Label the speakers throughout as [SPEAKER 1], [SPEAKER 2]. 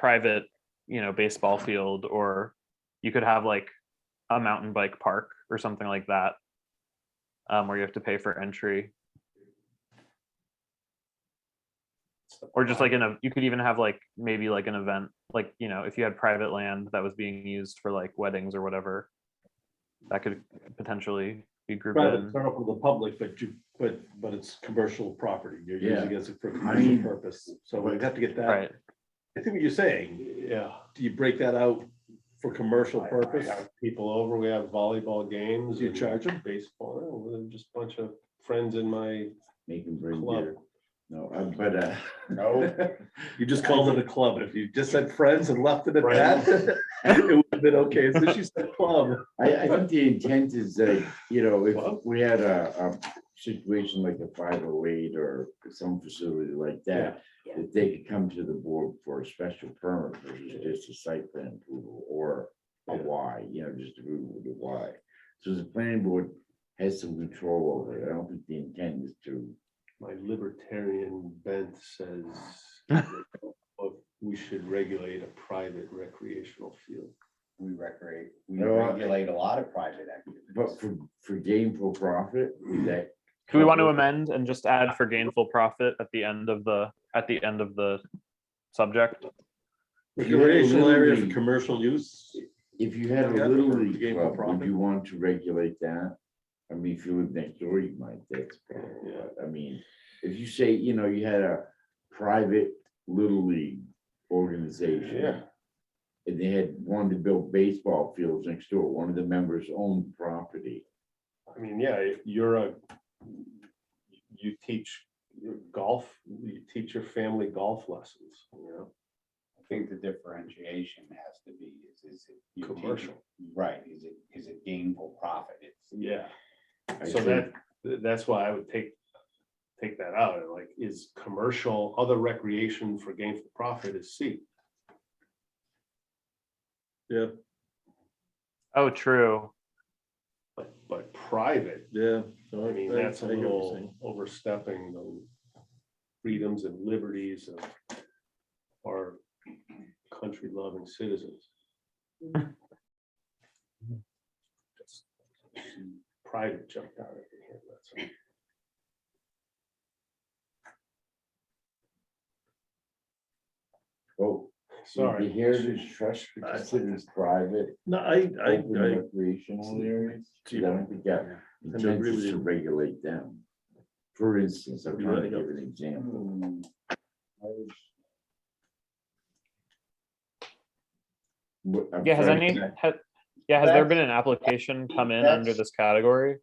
[SPEAKER 1] private, you know, baseball field, or you could have like a mountain bike park or something like that. Um, where you have to pay for entry, or just like in a, you could even have like, maybe like an event, like, you know, if you had private land that was being used for like weddings or whatever. That could potentially be grouped
[SPEAKER 2] Private,
[SPEAKER 1] in.
[SPEAKER 2] it's not for the public, but you, but, but it's commercial property. You're
[SPEAKER 3] Yeah.
[SPEAKER 2] using it as a- for
[SPEAKER 3] I
[SPEAKER 2] commercial
[SPEAKER 3] mean-
[SPEAKER 2] purpose. So we'd have to get that.
[SPEAKER 1] Right,
[SPEAKER 2] I think what you're saying,
[SPEAKER 4] Yeah.
[SPEAKER 2] do you break that out for commercial purpose?
[SPEAKER 4] I have People over, we have volleyball games.
[SPEAKER 2] Do you
[SPEAKER 4] and
[SPEAKER 2] charge 'em?
[SPEAKER 4] Baseball, Oh, well, just a bunch of friends in my
[SPEAKER 3] Make them bring
[SPEAKER 4] club.
[SPEAKER 3] beer. No, I'm, but, uh.
[SPEAKER 4] No.
[SPEAKER 2] You just called it a club. If you just said friends and left it at
[SPEAKER 4] Friends.
[SPEAKER 2] that, it would have been okay. So she said club.
[SPEAKER 3] I, I think the intent is that, you know, if
[SPEAKER 4] Well-
[SPEAKER 3] we had a, a situation like the five oh eight or some facility like that,
[SPEAKER 5] Yeah.
[SPEAKER 3] that they could come to the board for a special permit versus just a site plan approval or a
[SPEAKER 4] Yeah.
[SPEAKER 3] why, you know, just approval with a why. So the planning board has some control over it. I don't think the intent is to,
[SPEAKER 4] My libertarian bent says "Look, we should regulate a private recreational field.
[SPEAKER 6] we recreate, we
[SPEAKER 3] No, I-
[SPEAKER 6] regulate a lot of private
[SPEAKER 3] but
[SPEAKER 6] activities.
[SPEAKER 3] for, for gainful profit, is that.
[SPEAKER 1] do we want to
[SPEAKER 3] covered?
[SPEAKER 1] amend and just add for gainful profit at the end of the, at the end of the subject?
[SPEAKER 2] Recreational area for
[SPEAKER 3] Literally.
[SPEAKER 2] commercial use.
[SPEAKER 3] If you had
[SPEAKER 2] Yeah,
[SPEAKER 3] a little
[SPEAKER 2] for
[SPEAKER 3] league
[SPEAKER 2] gainful
[SPEAKER 3] club, would
[SPEAKER 2] profit.
[SPEAKER 3] you want to regulate that? I mean, if you live next door, you might, that's, probably-
[SPEAKER 4] Yeah.
[SPEAKER 3] I mean, if you say, you know, you had a private little league organization. And they had wanted to build baseball fields next door, one of the members owned property.
[SPEAKER 4] I mean, yeah, if you're a, you teach golf, you teach your family golf lessons, you know?
[SPEAKER 6] I think the differentiation has to be, is, is it. you take-
[SPEAKER 4] Commercial.
[SPEAKER 6] Right, is it, is it gainful profit? It's,
[SPEAKER 4] Yeah.
[SPEAKER 3] I
[SPEAKER 4] So
[SPEAKER 3] think-
[SPEAKER 4] that, that's why I would take, take that out, like, is commercial, other recreation for gainful profit is C.
[SPEAKER 2] Yeah,
[SPEAKER 1] Oh, true.
[SPEAKER 4] But, but private,
[SPEAKER 2] yeah.
[SPEAKER 4] I mean, that's a little overstepping the freedoms and liberties of our country loving citizens. Private jumped out of here, that's. all.
[SPEAKER 3] Oh, so
[SPEAKER 4] Sorry.
[SPEAKER 3] the Heritage Trust be
[SPEAKER 2] I-
[SPEAKER 3] considered private,
[SPEAKER 2] No, I, I,
[SPEAKER 3] open
[SPEAKER 2] I,
[SPEAKER 3] recreational areas. I
[SPEAKER 2] Gee,
[SPEAKER 3] don't think that
[SPEAKER 2] I
[SPEAKER 3] intent
[SPEAKER 2] agree with
[SPEAKER 3] is to
[SPEAKER 2] you.
[SPEAKER 3] regulate them. For instance, I'm
[SPEAKER 2] You
[SPEAKER 3] trying to
[SPEAKER 2] wanna go-
[SPEAKER 3] give an example.
[SPEAKER 6] Hmm,
[SPEAKER 3] What- I'm
[SPEAKER 1] Yeah, has
[SPEAKER 3] sorry,
[SPEAKER 1] any,
[SPEAKER 3] that-
[SPEAKER 1] ha- yeah, has there
[SPEAKER 6] That's-
[SPEAKER 1] been an application come in
[SPEAKER 6] that's-
[SPEAKER 1] under this category?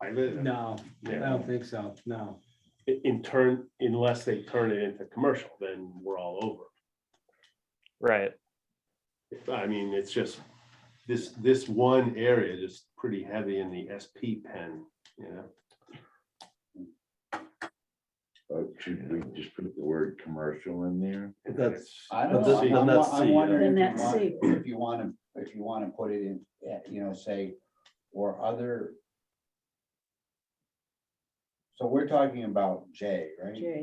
[SPEAKER 4] Private,
[SPEAKER 7] No, I
[SPEAKER 4] yeah.
[SPEAKER 7] don't think so, no.
[SPEAKER 4] In- In turn, unless they turn it into commercial, then we're all over.
[SPEAKER 1] Right,
[SPEAKER 4] If- I mean, it's just, this, this one area is pretty heavy in the SP pen, you know?
[SPEAKER 3] uh, Should we just put the word commercial in there?
[SPEAKER 2] That's-
[SPEAKER 6] I
[SPEAKER 2] But
[SPEAKER 6] don't
[SPEAKER 2] this-
[SPEAKER 6] know,
[SPEAKER 2] but
[SPEAKER 6] I'm wa-
[SPEAKER 2] that's
[SPEAKER 6] I'm
[SPEAKER 2] C,
[SPEAKER 6] wondering
[SPEAKER 5] yeah.
[SPEAKER 6] if
[SPEAKER 5] Then
[SPEAKER 6] you
[SPEAKER 5] that's
[SPEAKER 6] want- if you want to, if you want to put it in, eh, you know, say, or other. So we're talking about J, right?
[SPEAKER 5] J.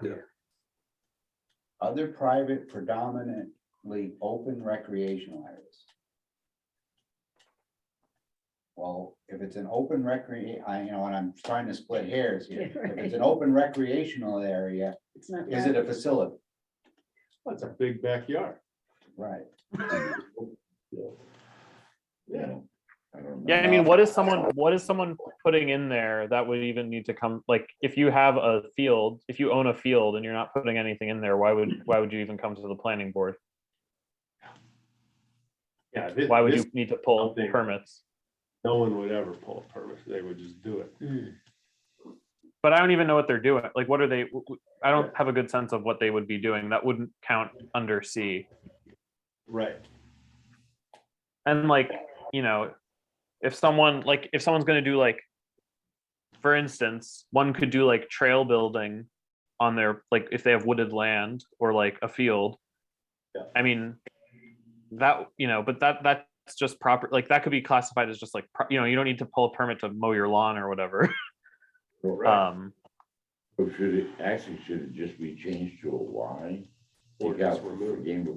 [SPEAKER 6] Bill?
[SPEAKER 4] yeah.
[SPEAKER 6] Other private predominantly open recreational areas. Well, if it's an open recre, I, you know, and I'm trying to split hairs here,
[SPEAKER 5] Yeah,
[SPEAKER 6] if
[SPEAKER 5] right.
[SPEAKER 6] it's an open recreational area,
[SPEAKER 5] It's not.
[SPEAKER 6] is it a facility?
[SPEAKER 4] That's a big backyard.
[SPEAKER 6] Right.
[SPEAKER 4] Yeah.
[SPEAKER 3] I don't know.
[SPEAKER 1] yeah, I mean, what is someone, what is someone putting in there that would even need to come, like, if you have a field, if you own a field and you're not putting anything in there, why would, why would you even come to the planning board?
[SPEAKER 4] Yeah. thi-
[SPEAKER 1] Why would you
[SPEAKER 4] this-
[SPEAKER 1] need to pull
[SPEAKER 4] something-
[SPEAKER 1] permits?
[SPEAKER 4] No one would ever pull a permit. They would just do it.
[SPEAKER 7] Mm.
[SPEAKER 1] But I don't even know what they're doing, like, what are they, w- w- I don't have a good sense of what they would be doing, that wouldn't count under C.
[SPEAKER 4] Right.
[SPEAKER 1] and like you know if someone like if someone's going to do like for instance one could do like trail building on their like if they have wooded land or like a field
[SPEAKER 4] Yeah.
[SPEAKER 1] i mean that you know but that that's just proper like that could be classified as just like pro- you know you don't need to pull a permit to mow your lawn or whatever
[SPEAKER 3] Or-
[SPEAKER 1] um
[SPEAKER 3] or Should it, actually, should it just be changed to a Y? take
[SPEAKER 4] ordinance
[SPEAKER 3] out
[SPEAKER 4] removed.
[SPEAKER 3] game of